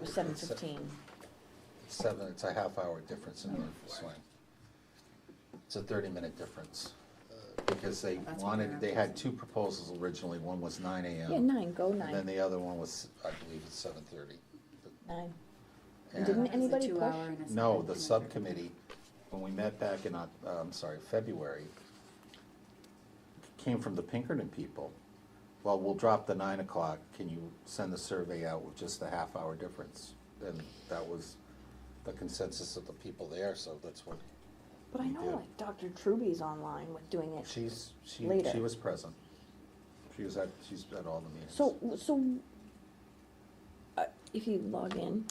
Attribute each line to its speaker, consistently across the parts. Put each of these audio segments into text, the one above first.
Speaker 1: was seven fifteen.
Speaker 2: Seven, it's a half hour difference in Norfolk Swing. It's a thirty minute difference, uh, because they
Speaker 3: That's what
Speaker 2: wanted,
Speaker 3: they're
Speaker 2: they had two proposals originally, one was nine AM.
Speaker 1: Yeah, nine, go
Speaker 2: And then
Speaker 1: nine,
Speaker 2: the other one was, I believe it's seven thirty.
Speaker 1: nine.
Speaker 2: And
Speaker 1: Didn't
Speaker 3: It's a
Speaker 1: anybody push?
Speaker 3: two-hour and a
Speaker 2: No,
Speaker 3: seven-
Speaker 2: the subcommittee, when we met back in, Oc- uh, I'm sorry, February, came from the Pinkerton people. Well, we'll drop the nine o'clock, can you send the survey out with just a half hour difference? And that was the consensus of the people there, so that's what,
Speaker 1: But I
Speaker 2: You
Speaker 1: know
Speaker 2: did.
Speaker 1: like Dr. Truby's online with doing it.
Speaker 2: she's, she, she
Speaker 1: Later.
Speaker 2: was present. She was at, she's at all the meetings.
Speaker 1: So, so, uh, if you log in,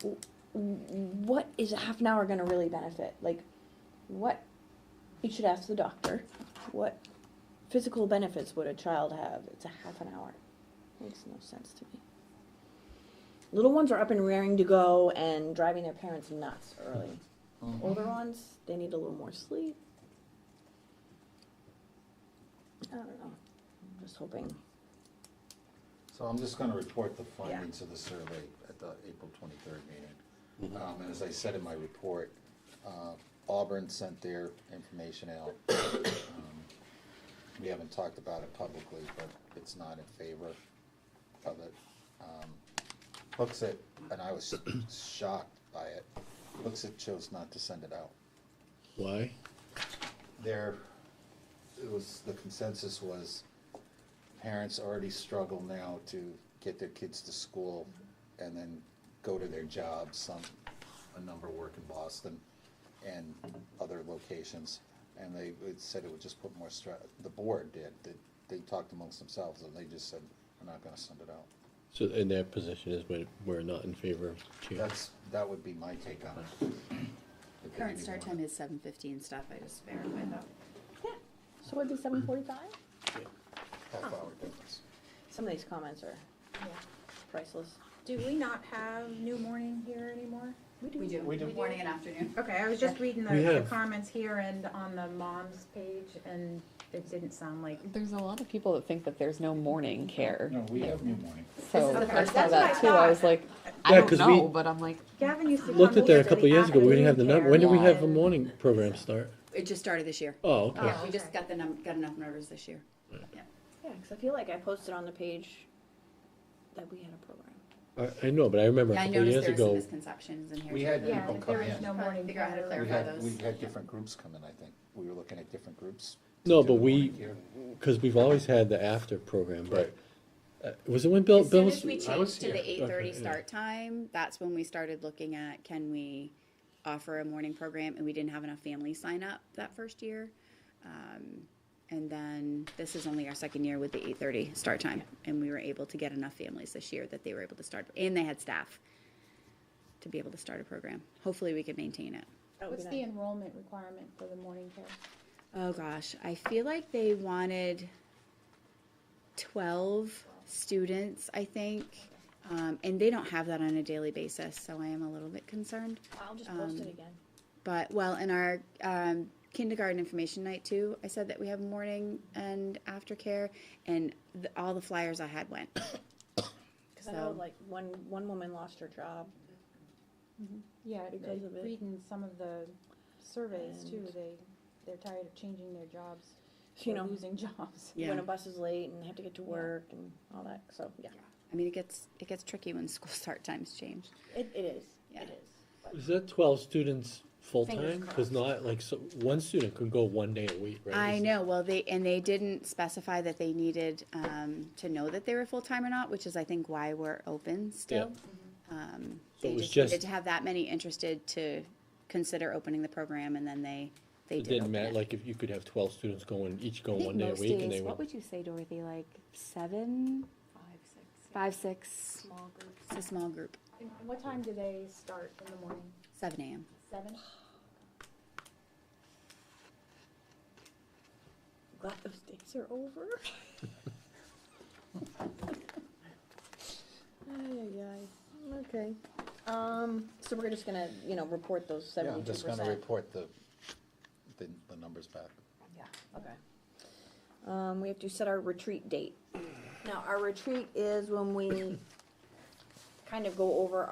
Speaker 1: w- w- what is a half an hour gonna really benefit? Like, what, you should ask the doctor, what physical benefits would a child have? It's a half an hour. Makes no sense to me. Little ones are up and raring to go and driving their parents nuts early.
Speaker 2: Mhm.
Speaker 1: Older ones, they need a little more sleep. I don't know, I'm just hoping.
Speaker 2: So I'm just gonna report the findings of the survey at the April twenty-third meeting. Um, and as I said in my report, uh, Auburn sent their information out. Um, We haven't talked about it publicly, but it's not in favor of it. Um, Hooks it, and I was shocked by it, Hooks it chose not to send it out
Speaker 4: Why?
Speaker 2: there, it was, the consensus was, parents already struggle now to get their kids to school and then go to their jobs, some, a number work in Boston and other locations, and they it said it would just put more stress, the board did, that they talked amongst themselves, and they just said, we're not gonna send it out.
Speaker 4: So, and their position is we're, we're not in favor of the change.
Speaker 2: That's, that would be my take on it. If they
Speaker 3: Current
Speaker 2: didn't
Speaker 3: start
Speaker 2: want
Speaker 3: time is seven fifteen stuff, I just verified that.
Speaker 1: Yeah, so it'd be seven forty-five?
Speaker 2: a Half hour difference.
Speaker 1: Some of these comments are priceless.
Speaker 5: Do we not have New Morning here anymore?
Speaker 3: We do.
Speaker 2: We do.
Speaker 3: Morning and afternoon.
Speaker 5: Okay, I was just reading the,
Speaker 4: We
Speaker 5: the
Speaker 4: have.
Speaker 5: comments here and on the mom's page, and it didn't sound like.
Speaker 6: There's a lot of people that think that there's no morning care.
Speaker 2: No, we have new morning.
Speaker 6: So
Speaker 5: This is the
Speaker 6: I
Speaker 5: first-
Speaker 6: saw
Speaker 5: that's what
Speaker 6: that
Speaker 5: I
Speaker 6: too. I
Speaker 5: thought.
Speaker 6: was like, I
Speaker 4: Yeah,
Speaker 6: don't
Speaker 4: 'cause
Speaker 6: know,
Speaker 4: we-
Speaker 6: but I'm like,
Speaker 5: Gavin used to.
Speaker 4: Looked
Speaker 5: come
Speaker 4: at that
Speaker 5: here
Speaker 4: a
Speaker 5: for
Speaker 4: couple
Speaker 5: the
Speaker 4: years ago, we didn't have the
Speaker 5: afternoon
Speaker 4: number, when did we have the
Speaker 5: care.
Speaker 4: morning program start?
Speaker 3: It just started this year.
Speaker 4: Oh, okay,
Speaker 3: Yeah, we just
Speaker 5: okay.
Speaker 3: got the num, got enough numbers this year.
Speaker 1: Yeah, because I feel like I posted on the page that we had a program.
Speaker 4: I, I know, but I remember a
Speaker 3: Oh. Yeah, I
Speaker 4: couple
Speaker 3: noticed
Speaker 4: years
Speaker 3: there were some
Speaker 4: ago,
Speaker 3: misconceptions in here.
Speaker 2: We
Speaker 3: too.
Speaker 2: had
Speaker 5: Yeah,
Speaker 2: people
Speaker 5: if
Speaker 2: come
Speaker 5: there is
Speaker 2: in.
Speaker 5: no morning.
Speaker 3: Figure out how to
Speaker 5: care,
Speaker 2: We
Speaker 3: clarify
Speaker 5: yeah.
Speaker 2: had,
Speaker 3: those.
Speaker 2: we had different groups come in, I think. We were looking at different groups.
Speaker 4: No,
Speaker 2: to
Speaker 4: but
Speaker 2: the morning
Speaker 4: we-
Speaker 2: here.
Speaker 4: because we've always had the after program, but, uh, was it when Bill,
Speaker 3: As soon
Speaker 4: Bill
Speaker 3: as
Speaker 4: was? uh,
Speaker 3: we
Speaker 2: I was
Speaker 3: changed to
Speaker 2: here.
Speaker 3: the eight thirty
Speaker 4: Okay, yeah.
Speaker 3: start time, that's when we started looking at, can we offer a morning program? And we didn't have enough families sign up that first year. Um, And then this is only our second year with the eight thirty start time. And we were able to get enough families this year that they were able to start, and they had staff to be able to start a program. Hopefully, we can maintain it.
Speaker 5: What's the enrollment requirement for the morning care?
Speaker 3: Oh, gosh, I feel like they wanted twelve students, I think. Um, and they don't have that on a daily basis, so I am a little bit concerned.
Speaker 1: I'll just post
Speaker 3: Um,
Speaker 1: it again.
Speaker 3: But, well, in our, um, kindergarten information night too, I said that we have morning and aftercare, and the, all the flyers I had went.
Speaker 1: Because I know
Speaker 3: So-
Speaker 1: like one, one woman lost her job.
Speaker 5: Yeah,
Speaker 1: Because of it.
Speaker 5: reading some of the surveys too, they, they're tired of changing their jobs,
Speaker 1: You
Speaker 5: or
Speaker 1: know.
Speaker 5: losing jobs.
Speaker 1: When a bus is late and they have to get to work and all that, so, yeah.
Speaker 3: I mean, it gets, it gets tricky when school start times change.
Speaker 1: It, it is,
Speaker 3: Yeah.
Speaker 1: it is.
Speaker 4: Is that twelve students full-time? Cause
Speaker 3: crossed.
Speaker 4: not, like, so, one student could go one day a week, right?
Speaker 3: I
Speaker 4: Is-
Speaker 3: know, well, they, and they didn't specify that they needed, um, to know that they were full-time or not, which is, I think, why we're open still. Um,
Speaker 4: So it
Speaker 3: they
Speaker 4: was
Speaker 3: just needed
Speaker 4: just-
Speaker 3: to have that many interested to consider opening the program, and then they, they
Speaker 4: It
Speaker 3: did
Speaker 4: didn't
Speaker 3: open
Speaker 4: matter,
Speaker 3: it.
Speaker 4: like, if you could have twelve students going, each
Speaker 6: I
Speaker 4: going
Speaker 6: think
Speaker 4: one day a
Speaker 6: most
Speaker 4: week, and they
Speaker 6: days, what
Speaker 4: would,
Speaker 6: would you say, Dorothy, like seven,
Speaker 7: Five, six.
Speaker 6: five, six?
Speaker 7: Small groups.
Speaker 3: It's a small group,
Speaker 5: And what time do they start in the morning?
Speaker 3: seven AM.
Speaker 5: Seven?
Speaker 1: Glad those days are over. Ay, ay, ay. okay. Um, so we're just gonna, you know, report those
Speaker 2: Yeah,
Speaker 1: seventy-two
Speaker 2: I'm
Speaker 1: percent.
Speaker 2: just gonna report the, the, the numbers back.
Speaker 1: Yeah, okay. Um, we have to set our retreat date. Now, our retreat is when we kind of go over